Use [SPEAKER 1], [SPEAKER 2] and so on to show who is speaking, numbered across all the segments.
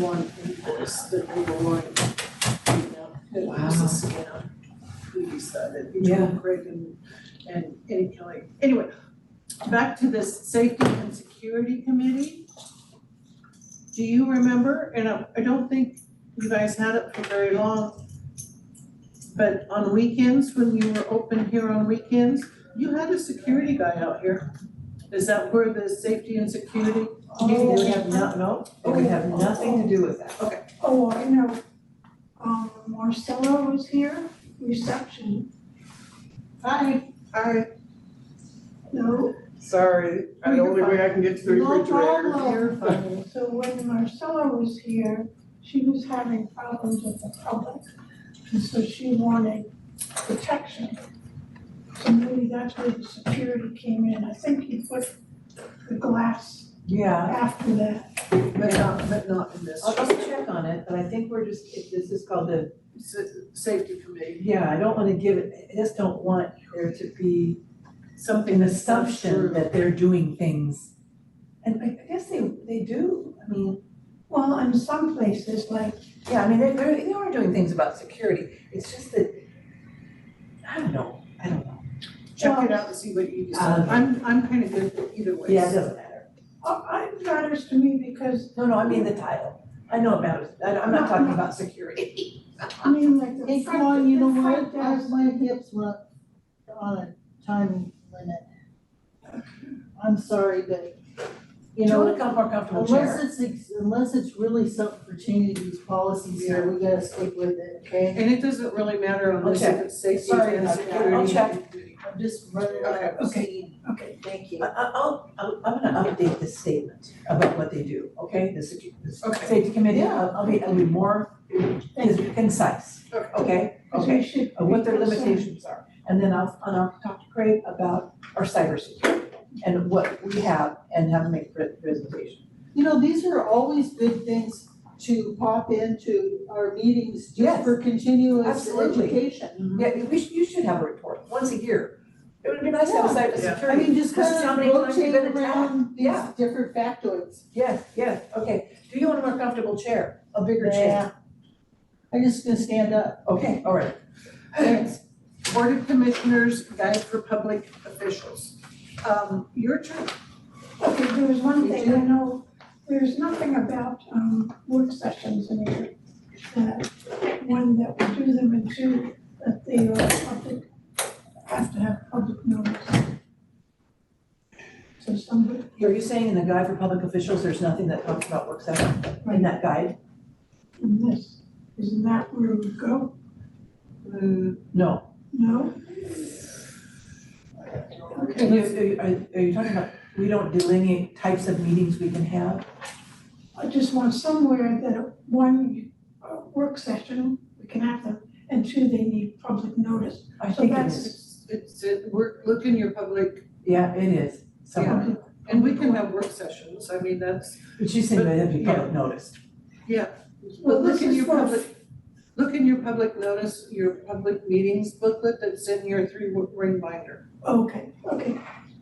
[SPEAKER 1] one invoice that we were like, you know, who was the scam? Who decided
[SPEAKER 2] Yeah.
[SPEAKER 1] between Craig and, and Eddie Kelly? Anyway, back to this safety and security committee. Do you remember, and I, I don't think you guys had it for very long, but on weekends, when you were open here on weekends, you had a security guy out here. Is that where the safety and security,
[SPEAKER 2] Oh.
[SPEAKER 1] they have not, no?
[SPEAKER 2] It would have nothing to do with that.
[SPEAKER 3] Oh, I know. Um, Marcelo was here, reception,
[SPEAKER 1] Hi, hi.
[SPEAKER 3] no,
[SPEAKER 4] Sorry, the only way I can get to the
[SPEAKER 3] no
[SPEAKER 4] refrigerator.
[SPEAKER 3] problem. So when Marcelo was here, she was having problems with the public, and so she wanted protection. So maybe that's where the security came in, I think he put the glass
[SPEAKER 2] Yeah,
[SPEAKER 3] after that.
[SPEAKER 1] But not, but not in this,
[SPEAKER 2] I'll just check on it, but I think we're just, it- this is called the,
[SPEAKER 1] s- safety committee,
[SPEAKER 2] yeah, I don't wanna give it, I just don't want there to be
[SPEAKER 1] something
[SPEAKER 2] an
[SPEAKER 1] that's not
[SPEAKER 2] assumption
[SPEAKER 1] true.
[SPEAKER 2] that they're doing things. And I I guess they, they do, I mean,
[SPEAKER 3] Well, in some places, like,
[SPEAKER 2] yeah, I mean, they're, they're, they are doing things about security, it's just that, I don't know, I don't know.
[SPEAKER 1] Check it out and see what you decide,
[SPEAKER 2] Um,
[SPEAKER 1] I'm, I'm kind of good with either way.
[SPEAKER 2] Yeah, it doesn't matter.
[SPEAKER 3] uh, it matters to me because,
[SPEAKER 2] No, no, I mean the title, I know it matters, I, I'm not talking about security.
[SPEAKER 3] I mean, like the
[SPEAKER 5] Hey,
[SPEAKER 3] front,
[SPEAKER 5] come on, you know
[SPEAKER 3] the
[SPEAKER 5] what,
[SPEAKER 3] front
[SPEAKER 5] I
[SPEAKER 3] desk,
[SPEAKER 5] have my hips were on a time limit. I'm sorry, but, you
[SPEAKER 2] Do you
[SPEAKER 5] know,
[SPEAKER 2] wanna come more comfortable chair?
[SPEAKER 5] unless it's, ex- unless it's really something for changing these policies here, we gotta stick with it, okay?
[SPEAKER 1] And it doesn't really matter unless
[SPEAKER 2] check.
[SPEAKER 1] it's safety
[SPEAKER 2] Sorry
[SPEAKER 1] and
[SPEAKER 2] about that.
[SPEAKER 1] security.
[SPEAKER 2] I'll
[SPEAKER 5] I'm just running out of
[SPEAKER 2] Okay,
[SPEAKER 5] steam,
[SPEAKER 3] okay,
[SPEAKER 5] thank you.
[SPEAKER 2] I, I- I'll, I'll, I'm gonna update this statement about what they do, okay? The secu- the
[SPEAKER 1] Okay.
[SPEAKER 2] safety committee, I'll, I'll be, I'll be more is concise,
[SPEAKER 1] Okay.
[SPEAKER 2] okay?
[SPEAKER 3] so we should
[SPEAKER 2] Of what their
[SPEAKER 3] be concerned.
[SPEAKER 2] limitations are. And then I'll, and I'll talk to Craig about our cybersecurity and what we have and have him make pre- presentation.
[SPEAKER 5] You know, these are always good things to pop into our meetings
[SPEAKER 2] Yes.
[SPEAKER 5] just for continuous
[SPEAKER 2] Absolutely.
[SPEAKER 5] education.
[SPEAKER 2] Yeah, we should, you should have a report once a year. It would be nice to have a
[SPEAKER 4] Yeah.
[SPEAKER 2] cybersecurity.
[SPEAKER 5] I mean, just
[SPEAKER 2] This is
[SPEAKER 5] kind
[SPEAKER 2] how
[SPEAKER 5] of
[SPEAKER 2] many times you've
[SPEAKER 5] rotate
[SPEAKER 2] been attacked.
[SPEAKER 5] around these
[SPEAKER 2] Yeah.
[SPEAKER 5] different factoids.
[SPEAKER 2] Yes, yes, okay. Do you want a more comfortable chair, a bigger chair?
[SPEAKER 5] Yeah. I'm just gonna stand up.
[SPEAKER 2] Okay, all right.
[SPEAKER 1] Thanks. Board of Commissioners Guide for Public Officials. Um, your turn.
[SPEAKER 3] Okay, there was one thing, I know, there's nothing about, um, work sessions in here. That one that we do them and two, that they are public, have to have public notice. So somebody,
[SPEAKER 2] Are you saying in the guide for public officials, there's nothing that talks about work session in that guide?
[SPEAKER 3] in this, isn't that where we go?
[SPEAKER 1] Hmm.
[SPEAKER 2] No.
[SPEAKER 3] No?
[SPEAKER 2] Are you, are you- are you talking about, we don't delineate types of meetings we can have?
[SPEAKER 3] I just want somewhere that one, uh, work session, we can have them, and two, they need public notice.
[SPEAKER 2] I
[SPEAKER 3] So
[SPEAKER 2] think it
[SPEAKER 3] that's-
[SPEAKER 2] is.
[SPEAKER 1] It's, it's, it- we're, look in your public,
[SPEAKER 2] Yeah, it is, somewhere.
[SPEAKER 3] Okay,
[SPEAKER 1] and we can have work sessions, I mean, that's,
[SPEAKER 2] But she's saying that it'd be
[SPEAKER 1] But-
[SPEAKER 2] public notice.
[SPEAKER 3] Well,
[SPEAKER 1] look
[SPEAKER 3] this
[SPEAKER 1] in
[SPEAKER 3] is
[SPEAKER 1] your
[SPEAKER 3] for-
[SPEAKER 1] public, look in your public notice, your public meetings booklet that's in your three ring binder.
[SPEAKER 3] Okay, okay,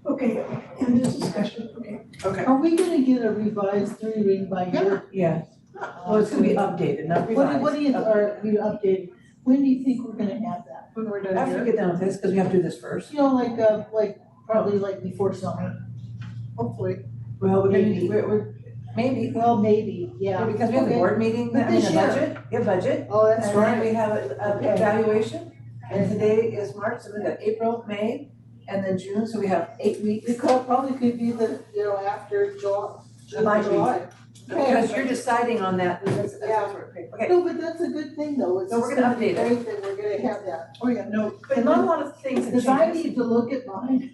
[SPEAKER 3] okay, end this discussion, okay.
[SPEAKER 1] Okay.
[SPEAKER 5] Are we gonna get a revised three ring by year?
[SPEAKER 2] Yeah, well, it's gonna be updated, not
[SPEAKER 5] What,
[SPEAKER 2] revised.
[SPEAKER 5] do- what do you, or we updated, when do you think we're gonna have that?
[SPEAKER 1] When we're done
[SPEAKER 2] After we
[SPEAKER 1] here,
[SPEAKER 2] get done with this, because we have to do this first.
[SPEAKER 5] You know, like, uh, like, probably like before summer.
[SPEAKER 1] hopefully.
[SPEAKER 2] Well, we're gonna,
[SPEAKER 5] Maybe.
[SPEAKER 2] we're, we're, maybe,
[SPEAKER 5] Well, maybe, yeah.
[SPEAKER 2] because we have the
[SPEAKER 5] Okay.
[SPEAKER 2] board meeting,
[SPEAKER 5] But
[SPEAKER 2] I mean,
[SPEAKER 5] this
[SPEAKER 2] the
[SPEAKER 5] year.
[SPEAKER 2] budget, yeah, budget.
[SPEAKER 5] Oh, that's
[SPEAKER 2] And then
[SPEAKER 5] right.
[SPEAKER 2] we have a- a
[SPEAKER 5] Okay.
[SPEAKER 2] evaluation, and today is March, so we got April, May, and then June, so we have eight weeks.
[SPEAKER 5] It could, probably could be the, you know, after July,
[SPEAKER 2] Might be.
[SPEAKER 5] July. Okay.
[SPEAKER 2] Because you're deciding on that, that's, that's
[SPEAKER 5] Yeah.
[SPEAKER 2] what we're- okay.
[SPEAKER 5] No, but that's a good thing though, it's
[SPEAKER 2] No, we're
[SPEAKER 5] just
[SPEAKER 2] gonna
[SPEAKER 5] gonna be
[SPEAKER 2] update
[SPEAKER 5] great that we're gonna have that.
[SPEAKER 1] Oh, yeah, no,
[SPEAKER 2] But not a lot of things have
[SPEAKER 5] Cause I
[SPEAKER 2] changed.
[SPEAKER 5] need to look at mine.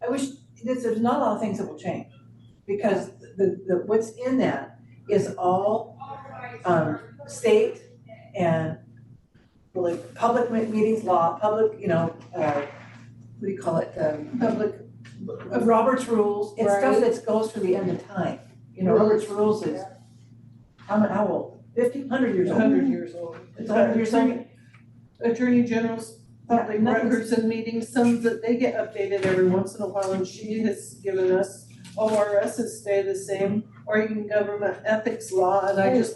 [SPEAKER 2] I wish, there's, there's not a lot of things that will change, because the, the, what's in that is all, um, state and like public me- meetings law, public, you know, uh, what do you call it, um,
[SPEAKER 1] public,
[SPEAKER 2] Robert's rules, it's stuff
[SPEAKER 5] Right.
[SPEAKER 2] that goes through the end of time. You know, Robert's rules is, how mu- how old? Fifty, hundred years old?
[SPEAKER 1] hundred years old.
[SPEAKER 2] It's a hundred years old?
[SPEAKER 1] Attorney General's public
[SPEAKER 2] Yeah, nothing's-
[SPEAKER 1] records and meetings, some that they get updated every once in a while, and she has given us, ORSs stay the same, Oregon government ethics law, and I just